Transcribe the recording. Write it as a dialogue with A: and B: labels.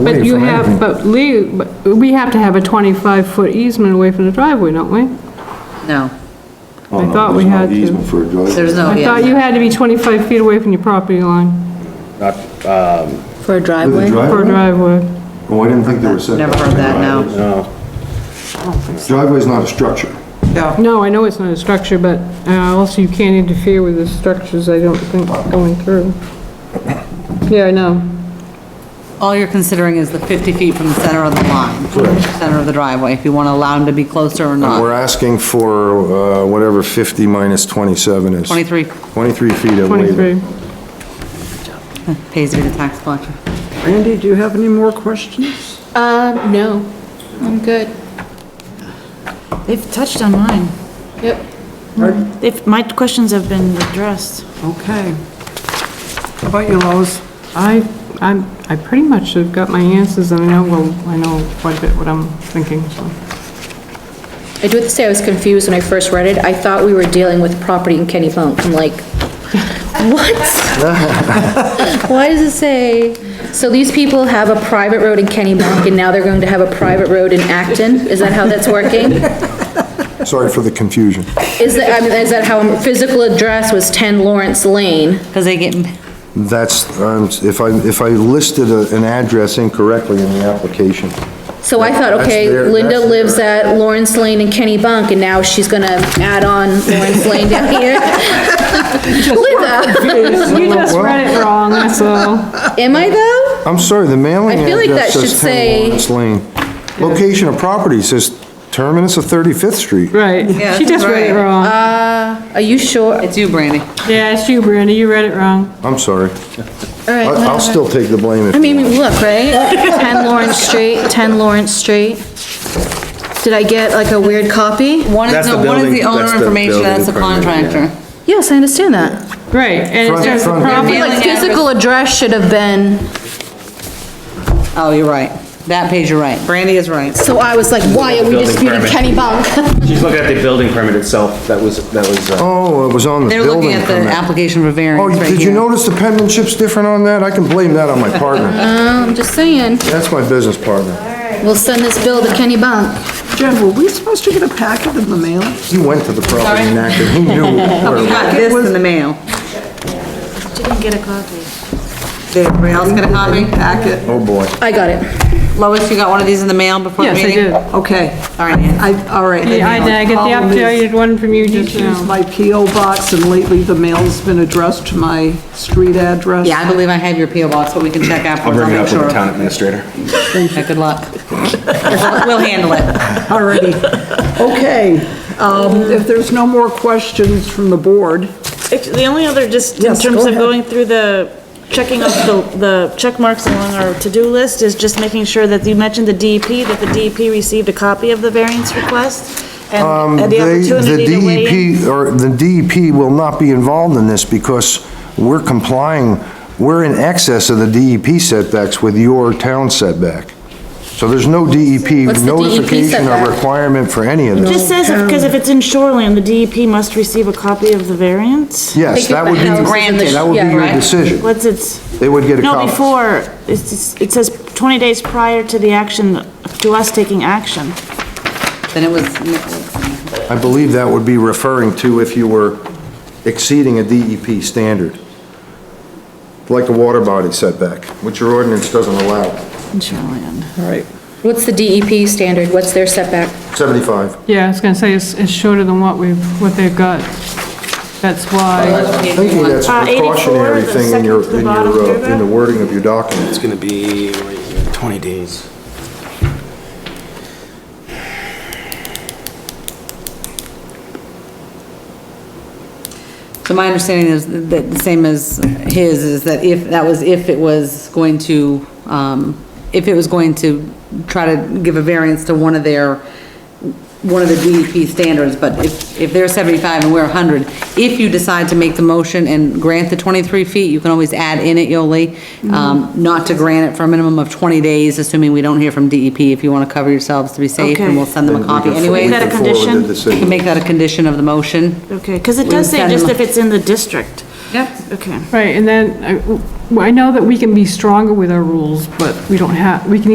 A: But
B: away
A: you
B: from
A: have,
B: anything.
A: but Lee, but we have to have a 25-foot easement away from the driveway, don't we?
C: No,
D: Oh,
A: I thought we had to.
D: Easement for a driveway.
C: there's no,
A: I thought
C: yeah,
A: you had to be 25 feet away from your property line
B: Not, um,
C: for a
D: With a
C: driveway?
A: for a
D: driveway?
A: driveway.
D: Oh, I didn't think there was setbacks.
C: Never heard that, no.
B: no,
D: Driveway's not a structure.
E: No,
A: No, I know it's not a structure, but uh, also you can't interfere with the structures, I don't think, going through. Yeah, I know.
C: All you're considering is the 50 feet from the center of the line, from the center of the driveway, if you want to allow them to be closer or
D: And we're
C: not.
D: asking for uh, whatever 50 minus 27 is.
C: 23
D: 23 feet of waiver.
A: 23.
C: pays to be the tax collector.
E: Randy, do you have any more questions?
F: Uh, no, I'm good.
G: They've touched on mine.
F: Yep.
E: Pardon?
G: If, my questions have been addressed.
E: Okay. How about you, Lois?
A: I, I'm, I pretty much have got my answers, and I know, well, I know quite a bit what I'm thinking, so.
F: I do have to say, I was confused when I first read it. I thought we were dealing with property in Kenny Bunk. I'm like, what? Why does it say? So these people have a private road in Kenny Bunk, and now they're going to have a private road in Acton? Is that how that's working?
D: Sorry for the confusion.
F: Is that, I mean, is that how, physical address was 10 Lawrence Lane?
C: Because they get,
D: That's, um, if I, if I listed a- an address incorrectly in the application.
F: So I thought,
D: That's
F: okay,
D: their-
F: Linda
D: that's
F: lives
D: their-
F: at Lawrence Lane and Kenny Bunk, and now she's gonna add on Lawrence Lane down here. Linda,
A: You just read it wrong, that's all.
F: am I though?
D: I'm sorry, the mailing
F: I feel like
D: address
F: that should
D: says 10
F: say-
D: Lawrence Lane. Location of property says terminus of 35th Street.
A: Right.
C: Yeah,
A: She just read it
C: right.
A: wrong.
F: Uh, are you sure? All
C: it's you, Brandy.
A: Yeah, it's you, Brandy, you read it wrong.
D: I'm sorry. I-
F: right,
D: I'll still take the blame if.
F: I mean,
D: you want.
F: look, right? 10 Lawrence Street, 10 Lawrence Street. Did I get like a weird copy?
C: One is,
B: That's
C: no,
B: the
C: one is
B: building-
C: the
B: that's
C: owner
B: the
C: information,
B: building
C: that's the
B: permit, yeah.
C: contractor.
F: Yes, I understand that.
A: Right, and
D: Front-
A: it says the
D: front.
F: I
A: property
F: feel like physical address should have been,
C: Oh, you're right. That page, you're right. Brandy is right.
F: so I was like, why are we
H: Building
F: disputing
H: permit.
F: Kenny Bunk?
H: She's looking at the building permit itself, that was, that was, uh,
D: Oh, it was on the
C: They're
D: building
C: looking at the
D: permit.
C: application for
D: Oh,
C: variance right
D: did you
C: here.
D: notice the penmanship's different on that? I can blame that on my partner.
F: I'm just saying,
D: That's my business partner.
F: we'll send this bill to Kenny Bunk.
E: Jen, were we supposed to get a packet in the mail?
D: He went to the property and acted, he knew. where it was.
C: Got this in the mail.
G: Didn't get a copy.
E: Did everybody else
C: Get a copy?
E: Packet,
D: Oh, boy.
F: I got it.
C: Lois, you got one of these in the mail before the
A: Yes, I
C: meeting?
A: did.
E: okay.
C: All right, Ann.
E: I, all right.
A: Yeah, I did, I get
E: Problem
A: the
E: is,
A: updated one from you
E: I
A: just
E: Use
A: now.
E: my PO box and lately the mail's been addressed to my street address.
C: Yeah, I believe I have your PO box, but we can check afterwards.
H: I'll bring
C: make
H: it up with
C: sure.
H: the town administrator.
C: Yeah, good luck. We'll- We'll handle it.
E: Already. Okay, um, if there's no more questions from the board,
G: Actually, The only other, just in
E: Yes,
G: terms
E: go
G: of
E: ahead.
G: going through the, checking off the, the check marks along our to-do list, is just making sure that you mentioned the DEP, that the DEP received a copy of the variance request, and and
D: Um, They- E
G: the opportunity to weigh in.
D: The DEP, or the DEP will not be involved in this because we're complying, we're in excess of the DEP setbacks with your town setback. So there's no DEP
F: What's
C: E
F: the DEP
D: notification or
F: setback?
D: requirement for any of this.
G: Just says, because if it's in shoreline, the DEP must receive a copy of the variance?
D: Yes, that would be,
F: Think of the
C: granted.
F: houses in the-
D: that would be
F: yeah,
D: your
F: right.
D: decision.
G: What's its?
D: They would get a
G: No,
D: copy.
G: before, it's- it's, it says 20 days prior to the action, to us taking action.
C: Then it was Nicholas.
D: I believe that would be referring to if you were exceeding a DEP standard, like a water body setback, which your ordinance doesn't allow,
G: In shoreline.
E: all right.
F: What's the DEP standard? What's their setback?
D: 75.
A: Yeah, I was gonna say, it's, it's shorter than what we've, what they've got. That's why,
D: I'm thinking that's a
G: Uh, 84,
D: precautionary
G: the
D: thing in
G: second
D: your,
G: to the
D: in
G: bottom
D: your, uh, in
G: paragraph.
D: the wording of your document.
H: It's gonna be right here, 20 days.
C: So my understanding is that the same as his, is that if, that was if it was going to, um, if it was going to try to give a variance to one of their, one of the DEP standards, but if, if they're seventy-five and we're hundred, if you decide to make the motion and grant the twenty-three feet, you can always add in it, Yoli, um, not to grant it for a minimum of twenty days, assuming we don't hear from DEP, if you wanna cover yourselves to be safe, and we'll
G: Okay.
C: send them a
D: We
C: copy
D: can for-
C: anyways.
D: we
G: Is that a
D: can forward the
G: condition?
C: You can
D: decision.
C: make that a condition of the motion.
G: Okay, because it does say
C: We've done
G: just
C: mo-
G: if it's in the district.
C: Yep.
G: Okay.
A: right, and then, uh, I- well, I know that we can be stronger with our rules, but we don't have, we can